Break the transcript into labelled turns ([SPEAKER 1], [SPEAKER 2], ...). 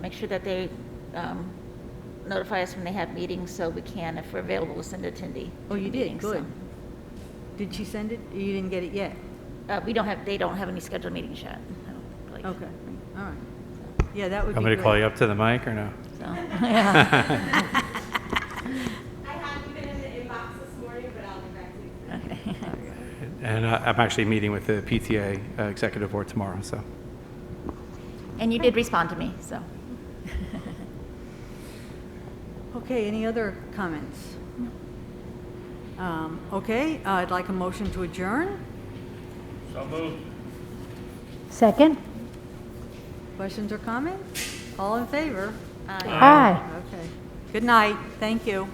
[SPEAKER 1] make sure that they um, notify us when they have meetings, so we can, if we're available, we'll send attendee.
[SPEAKER 2] Oh,
[SPEAKER 1] to
[SPEAKER 2] you
[SPEAKER 1] the
[SPEAKER 2] did,
[SPEAKER 1] meeting, so.
[SPEAKER 2] good. Did she send it? You didn't get it yet?
[SPEAKER 1] Uh, We don't have, they don't have any scheduled meetings yet. I don't believe.
[SPEAKER 2] Okay, all right. Yeah, that would be
[SPEAKER 3] Want
[SPEAKER 2] great.
[SPEAKER 3] me to call you up to the mic or no?
[SPEAKER 1] So, yeah.
[SPEAKER 4] I haven't been in the inbox this morning, but I'll get back to you.
[SPEAKER 1] Okay.
[SPEAKER 3] And I- I'm actually meeting with the PTA uh, Executive Board tomorrow, so.
[SPEAKER 1] And you did respond to me, so.
[SPEAKER 2] Okay, any other comments? Um, Okay, uh, I'd like a motion to adjourn.
[SPEAKER 5] Second?
[SPEAKER 2] Questions or comments? All in favor?
[SPEAKER 5] Aye.
[SPEAKER 2] Okay. Good night, thank you.